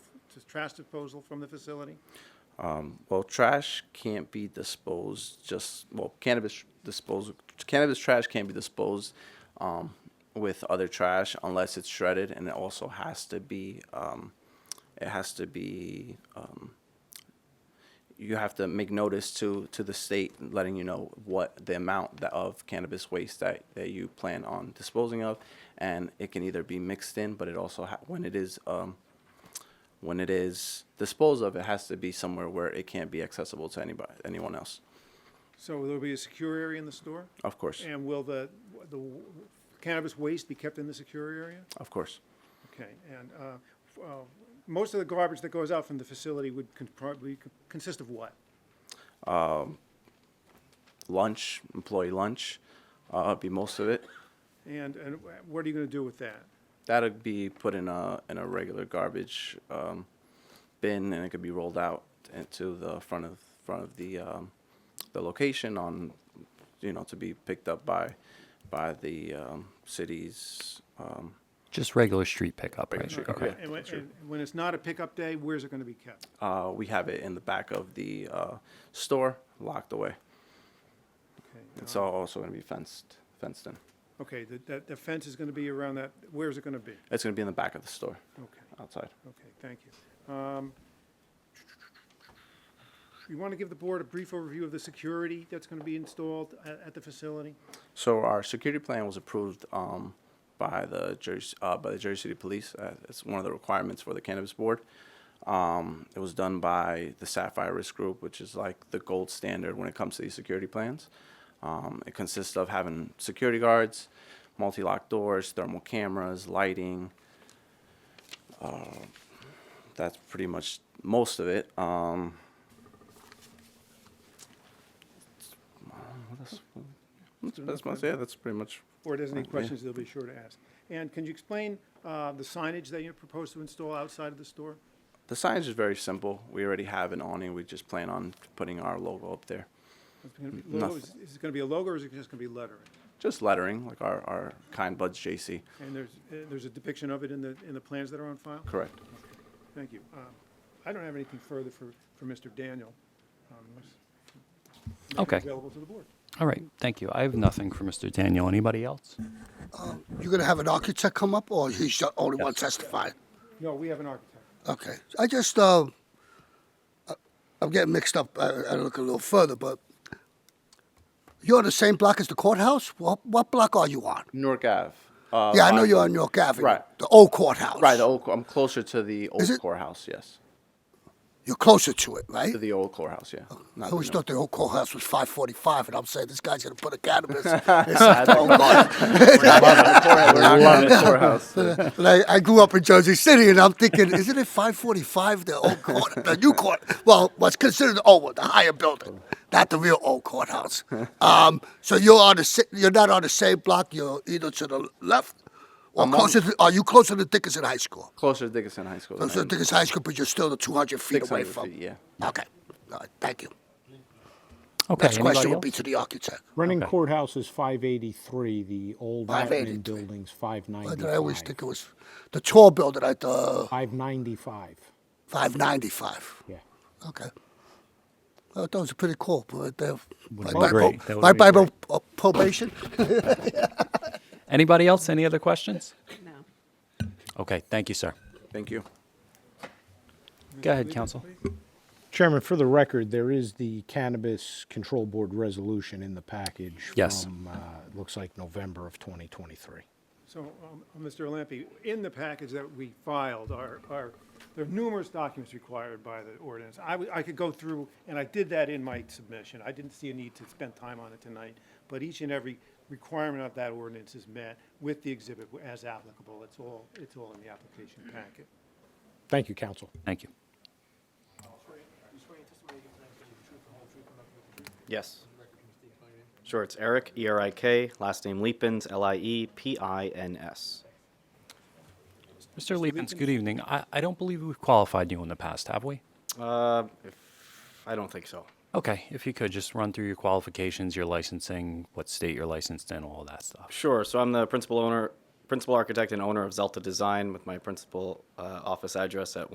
trash disposal from the facility? Well, trash can't be disposed just, well, cannabis disposal, cannabis trash can't be disposed um, with other trash unless it's shredded and it also has to be, um, it has to be, um, you have to make notice to, to the state letting you know what the amount that- of cannabis waste that, that you plan on disposing of. And it can either be mixed in, but it also, ha- when it is, um, when it is disposed of, it has to be somewhere where it can't be accessible to anybody, anyone else. So there'll be a secure area in the store? Of course, And will the, the cannabis waste be kept in the secure area? of course. Okay, and uh, f- uh, most of the garbage that goes out from the facility would con- probably c- consist of what? Lunch, employee lunch, uh, would be most of it. And, and wh- what are you going to do with that? That'd be put in a in a regular garbage um, bin, and it could be rolled out into the front of front of the um, the location on, you know, to be picked up by by the um, city's. Um, Just regular street pickup, Regular right? street Okay. pickup. And when, and when it's not a pickup day, where's it going to be kept? uh, we have it in the back of the uh, store, locked away. Okay, It's all also going to be fenced, fenced in. Okay, the- that, the fence is going to be around that, where's it going to be? It's going to be in the back of the store, Okay. outside. Okay, thank you. Um, You want to give the board a brief overview of the security that's going to be installed at, at the facility? So our security plan was approved um, by the Jersey uh, by the Jersey City Police. Uh, it's one of the requirements for the cannabis board. Um, it was done by the Sapphire Risk Group, which is like the gold standard when it comes to these security plans. Um, it consists of having security guards, multi-lock doors, thermal cameras, lighting. Uh, that's pretty much most of it. Um, what else? That's, that's, most- yeah, that's pretty much Or there's Uh, any questions they'll be sure to ask. And can you explain uh, the signage that you propose to install outside of the store? The signage is very simple. We already have an awning. We just plan on putting our logo up there. Is it gonna be logo- Is Nothing. is it going to be a logo or is it just going to be lettering? Just lettering, like our, our kind buds JC. And there's, uh, there's a depiction of it in the, in the plans that are on file? Correct. Thank you. Um, I don't have anything further for, for Mr. Daniel. um, unless- make it Okay. Available to the board. All right. Thank you. I have nothing for Mr. Daniel. Anybody else? You're gonna have an architect come up, or he's the only one testifying? No, we have an architect. Okay, I just, uh, I- I'm getting mixed up, I, I look a little further, but you're on the same block as the courthouse? What, what block are you on? Newark Ave. Uh, Yeah, I know by- you're on York Avenue. Right. The old courthouse. Right, the old, I'm closer to the old it- courthouse, yes. You're closer to it, right? To the old courthouse, yeah. I Not the always new- thought the old courthouse was five forty-five, and I'm saying this guy's gonna put a cannabis. I don't- We're not on the courthouse. We're not on the courthouse. And I, I grew up in Jersey City, and I'm thinking, isn't it 545 the old court, the new court? Well, what's considered the old one, the higher building, not the real old courthouse. Um, so you're on the si- you're not on the same block. You're either to the left or I'm on- closer. To, are you closer to Dickinson High School? Closer to Dickinson High School. than I Closer to am. Dickinson High School, but you're still the 200 feet away 600 from. feet, Yeah. Okay. All right, thank you. Okay. Next anybody question will else? be to the architect. Running courthouse is five eighty-three, the old admin 583. building's five Why did I always ninety-five. think it was the tall building at the Five ninety-five, 595. yeah. Okay. Well, that was pretty cool. Right there. Would Right be by, great. pro- That would right be by great. pro- uh, probation. Anybody else? Any other questions? No. Okay. Thank you, sir. Thank you. Go ahead, counsel. Chairman, for the record, there is the Cannabis Control Board resolution in the package. Yes. From, uh, it looks like November of twenty twenty-three. So, um, Mr. Lampe, in the package that we filed are, are, there are numerous documents required by the ordinance. I, w- I could go through, and I did that in my submission. I didn't see a need to spend time on it tonight. But each and every requirement of that ordinance is met with the exhibit as applicable. It's all, it's all in the application packet. Thank you, counsel. Thank you. Yes. Sure, it's Eric, E R I K, last name Leapins, L I E P I N S. Mr. Leapins, good evening. I, I don't believe we've qualified you in the past, have we? Uh, if, I don't think so. Okay. If you could just run through your qualifications, your licensing, what state you're licensed in, all that stuff. Sure, so I'm the principal owner, principal architect and owner of Zelta Design with my principal uh, office address at